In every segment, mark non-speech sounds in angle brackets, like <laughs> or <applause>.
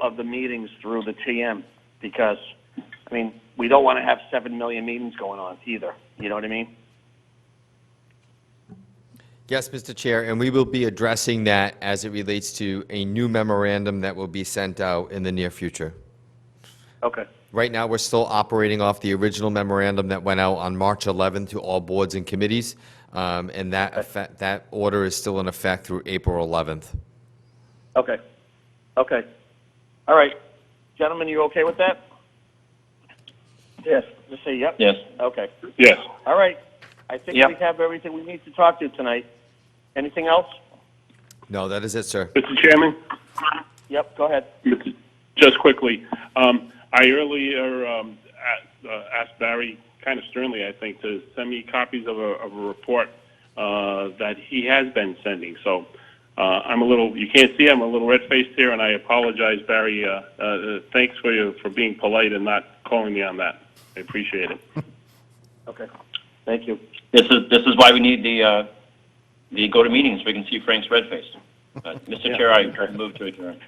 of the meetings through the TM because, I mean, we don't want to have 7 million meetings going on either. You know what I mean? Yes, Mr. Chair, and we will be addressing that as it relates to a new memorandum that will be sent out in the near future. Okay. Right now, we're still operating off the original memorandum that went out on March 11th to all boards and committees, um, and that, effect- that order is still in effect through April 11th. Okay. Okay. All right. Gentlemen, you okay with that? Yes. Just say yep? Yes. Okay. Yes. All right. I think Yep. we have everything we need to talk to tonight. Anything else? No, that is it, sir. Mr. Chairman, Yep, go ahead. Mr. just quickly, um, I earlier um, asked, uh, asked Barry kind of sternly, I think, to send me copies of a, of a report uh, that he has been sending. So uh, I'm a little, you can't see, I'm a little red-faced here, and I apologize, Barry. Uh, uh, thanks for your, for being polite and not calling me on that. I appreciate it. Okay. Thank you. This is, this is why we need the, uh, the go to meetings, we can see Frank's red face. Uh, <laughs> Mr. Chair, I move to adjourn.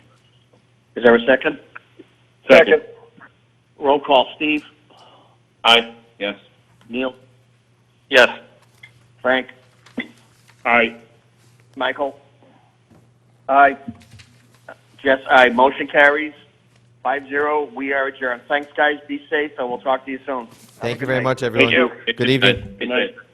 Is there a second? Second. Roll call. Steve? Aye, yes. Neil? Yes. Frank? Aye. Michael? Aye. Jess, aye. Motion carries five zero. We are adjourned. Thanks, guys. Be safe, and we'll talk to you soon. Have a Thank you good very night. much, everyone. you. Good evening. Good night.